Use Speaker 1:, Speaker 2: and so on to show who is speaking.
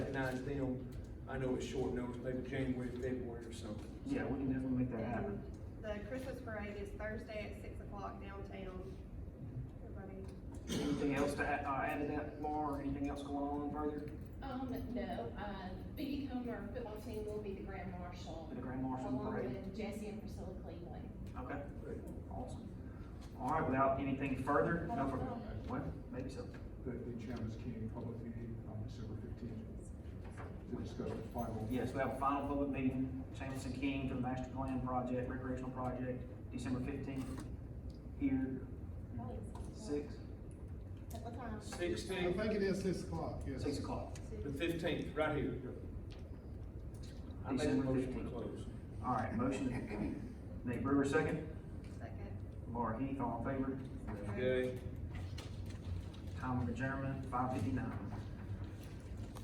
Speaker 1: recognize them, I know it's short notice, maybe January, February or something.
Speaker 2: Yeah, we can definitely make that happen.
Speaker 3: Um, The Christmas parade is Thursday at six o'clock downtown. Everybody,
Speaker 2: Anything else to add, uh, add to that, Laura, or anything else going on further
Speaker 4: Um, no, uh, Biggie Comer, football team will be the grand marshal,
Speaker 2: with the grand marshal
Speaker 4: along
Speaker 2: parade?
Speaker 4: with Jesse and Priscilla Cleveland.
Speaker 2: Okay, awesome. All right, without anything further, no further,
Speaker 4: Well,
Speaker 2: well, maybe so.
Speaker 5: the, the chairman's key public meeting on December fifteenth to discuss the final.
Speaker 2: Yes, we have a final public meeting, Chambers and King for the master plan project, recreational project, December fifteenth, here, six,
Speaker 3: at what time?
Speaker 5: I
Speaker 1: Sixteenth,
Speaker 5: think it is six o'clock, yes.
Speaker 2: six o'clock.
Speaker 1: the fifteenth, right here. I make a
Speaker 2: December
Speaker 1: motion to
Speaker 2: 15th.
Speaker 1: close.
Speaker 2: All right, motion, Nate Brewer, second,
Speaker 3: Second.
Speaker 2: Laura Heath, all in favor,
Speaker 1: Okay.
Speaker 2: time of adjournment, five fifty-nine.